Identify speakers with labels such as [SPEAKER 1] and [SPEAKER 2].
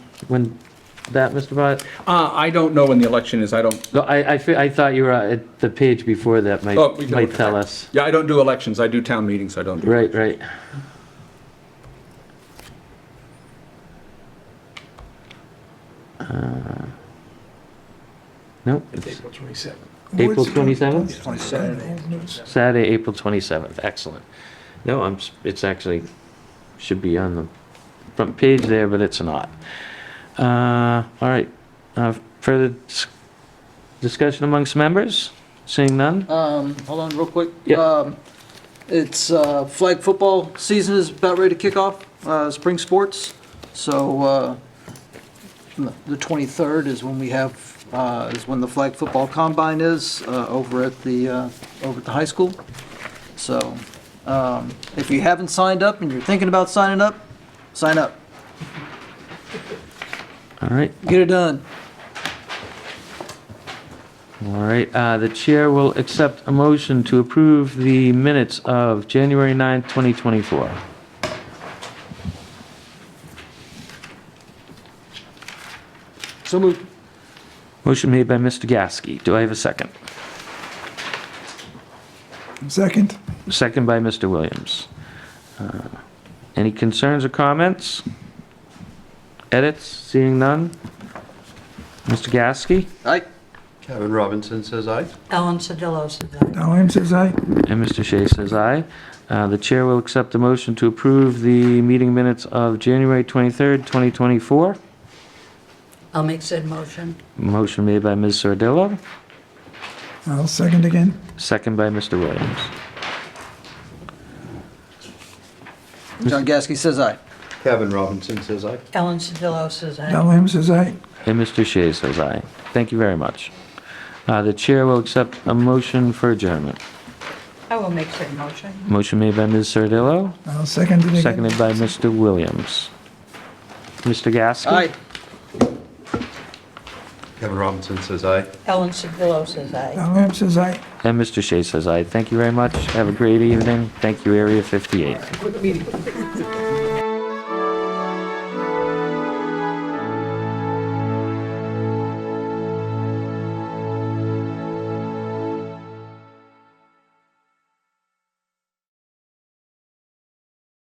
[SPEAKER 1] when that, Mr. Bott?
[SPEAKER 2] Uh, I don't know when the election is, I don't,
[SPEAKER 1] No, I, I, fe- I thought you were, uh, at the page before that might,
[SPEAKER 2] Oh, we can
[SPEAKER 1] might
[SPEAKER 2] look at
[SPEAKER 1] tell
[SPEAKER 2] that.
[SPEAKER 1] us.
[SPEAKER 2] yeah, I don't do elections, I do town meetings, I don't do.
[SPEAKER 1] Right, right. Uh, Nope, it's
[SPEAKER 3] April 27th.
[SPEAKER 1] April 27th?
[SPEAKER 3] Twenty-seventh.
[SPEAKER 1] Saturday, April 27th, excellent. No, I'm, s- it's actually, should be on the front page there, but it's not. Uh, All right, Uh, further dis- discussion amongst members? Seeing none?
[SPEAKER 4] Um, hold on real quick.
[SPEAKER 1] Yeah.
[SPEAKER 4] Um, It's, uh, flag football season is about ready to kick off, uh, spring sports. So, uh, the 23rd is when we have, uh, is when the flag football combine is, uh, over at the, uh, over at the high school. So, um, if you haven't signed up and you're thinking about signing up, sign up.
[SPEAKER 1] All right,
[SPEAKER 4] Get it done.
[SPEAKER 1] all right. Uh, The chair will accept a motion to approve the minutes of January 9th, 2024.
[SPEAKER 4] So moved.
[SPEAKER 1] Motion made by Mr. Gasky. Do I have a second?
[SPEAKER 3] Second.
[SPEAKER 1] Second by Mr. Williams. Uh, Any concerns or comments? Edits? Seeing none? Mr. Gasky
[SPEAKER 4] Aye.
[SPEAKER 5] Kevin Robinson says aye.
[SPEAKER 6] Ellen Sodillo says aye.
[SPEAKER 3] Diane says aye.
[SPEAKER 1] and Mr. Shea says aye. Uh, The chair will accept a motion to approve the meeting minutes of January 23rd, 2024.
[SPEAKER 6] I'll make said motion.
[SPEAKER 1] Motion made by Ms. Sardillo,
[SPEAKER 3] I'll second again.
[SPEAKER 1] second by Mr. Williams.
[SPEAKER 4] John Gasky says aye.
[SPEAKER 5] Kevin Robinson says aye.
[SPEAKER 6] Ellen Sodillo says aye.
[SPEAKER 3] Diane says aye.
[SPEAKER 1] And Mr. Shea says aye. Thank you very much. Uh, The chair will accept a motion for adjournment.
[SPEAKER 6] I will make said motion.
[SPEAKER 1] Motion made by Ms. Sardillo,
[SPEAKER 3] I'll second it again.
[SPEAKER 1] Seconded by Mr. Williams. Mr. Gaskin?
[SPEAKER 4] Aye.
[SPEAKER 5] Kevin Robinson says aye.
[SPEAKER 6] Ellen Sodillo says aye.
[SPEAKER 3] Diane says aye.
[SPEAKER 1] And Mr. Shea says aye. Thank you very much. Have a great evening. Thank you, Area 58.